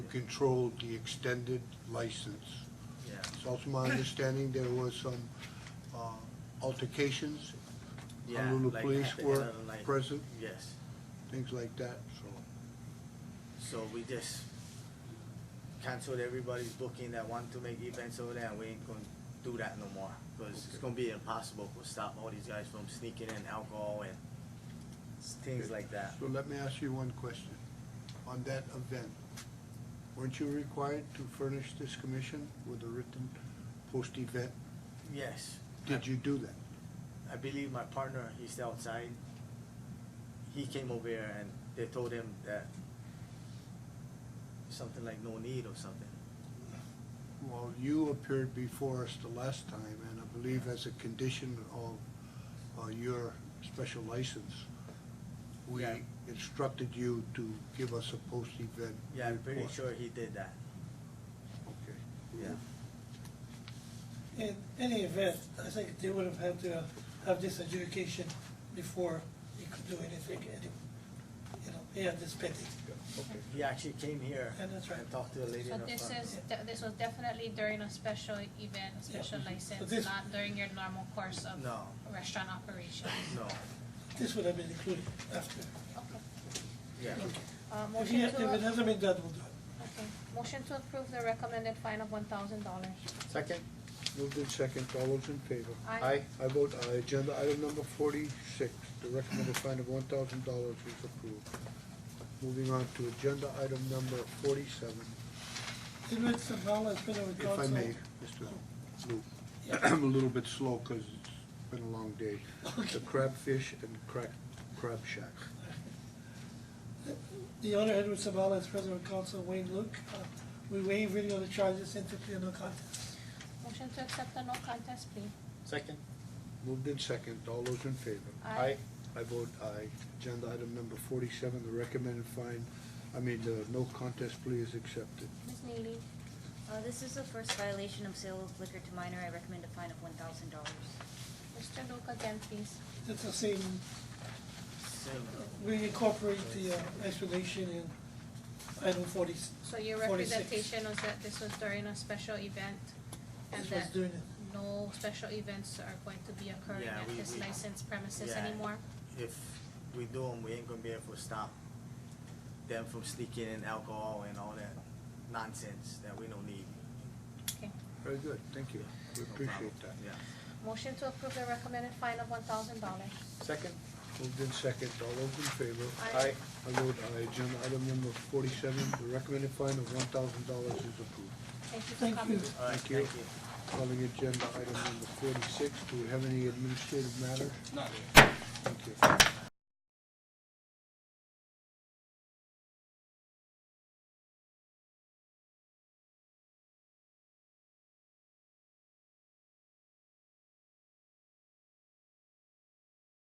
controlled the extended license. Yeah. It's also my understanding there was some uh, altercations. Yeah, Honolulu like police at the end were of the night. present, Yes, things like that, so. so we just canceled everybody's booking that want to make events over there, and we ain't gonna do that no more. Cause it's gonna be impossible to stop all these guys from sneaking in alcohol and s- things like that. So let me ask you one question. On that event, weren't you required to furnish this commission with a written post-event? Yes. Did you do that? I believe my partner, he's outside. He came over here and they told him that something like no need or something. Well, you appeared before us the last time, and I believe as a condition of uh, your special license, we Yeah. instructed you to give us a post-event Yeah, I'm pretty report. sure he did that. Okay. Yeah. In any event, I think they would have had to have this adjudication before they could do anything, and, you know, they had this pending. He actually came here Yeah, that's right. and talked to the lady So in the this front. is, de- this was definitely during a special event, a special Mhm. So license, this- not during your normal course of No. restaurant operations. No, This would have been included after. Okay. yeah. If Uh, he- motion if it to, hasn't been done, we'll do it. okay, motion to approve the recommended fine of one thousand dollars. Second? Moved in second, all those in favor? Aye. I vote aye. Agenda item number forty-six, the recommended fine of one thousand dollars is approved. Moving on to agenda item number forty-seven, Edward Sabala has been over if I council. may, Mr. Luke. I'm a little bit slow because it's been a long day. The crabfish and crack, crab shack. The owner, Edward Sabala, is present with council, Wayne Luke. Uh, We waive reading of the charges and declare no contest. Motion to accept the no contest plea. Second? Moved in second, all those in favor? Aye. I vote aye. Agenda item number forty-seven, the recommended fine, I mean, the no contest plea is accepted. Ms. Neely, Uh, this is the first violation of sale of liquor to minor. I recommend a fine of one thousand dollars. Mr. Luke again, please. It's the same, Same. we incorporate the uh, explanation in item forty, So your Forty-six. representation was that this was during a special event and This was that during it. no special events are going to be occurring Yeah, at we- this we- licensed premises Yeah. anymore? If we do them, we ain't gonna be able to stop them from sneaking in alcohol and all that nonsense that we don't need. Okay. Very good, thank you. We No problem. appreciate that. Yeah. Motion to approve the recommended fine of one thousand dollars. Second? Moved in second, all those in favor? Aye. I vote aye. Agenda item number forty-seven, the recommended fine of one thousand dollars is approved. Thank you for Thank coming. you. All right, Thank you. thank you. Calling agenda item number forty-six, do we have any administrative matters? Not Thank you.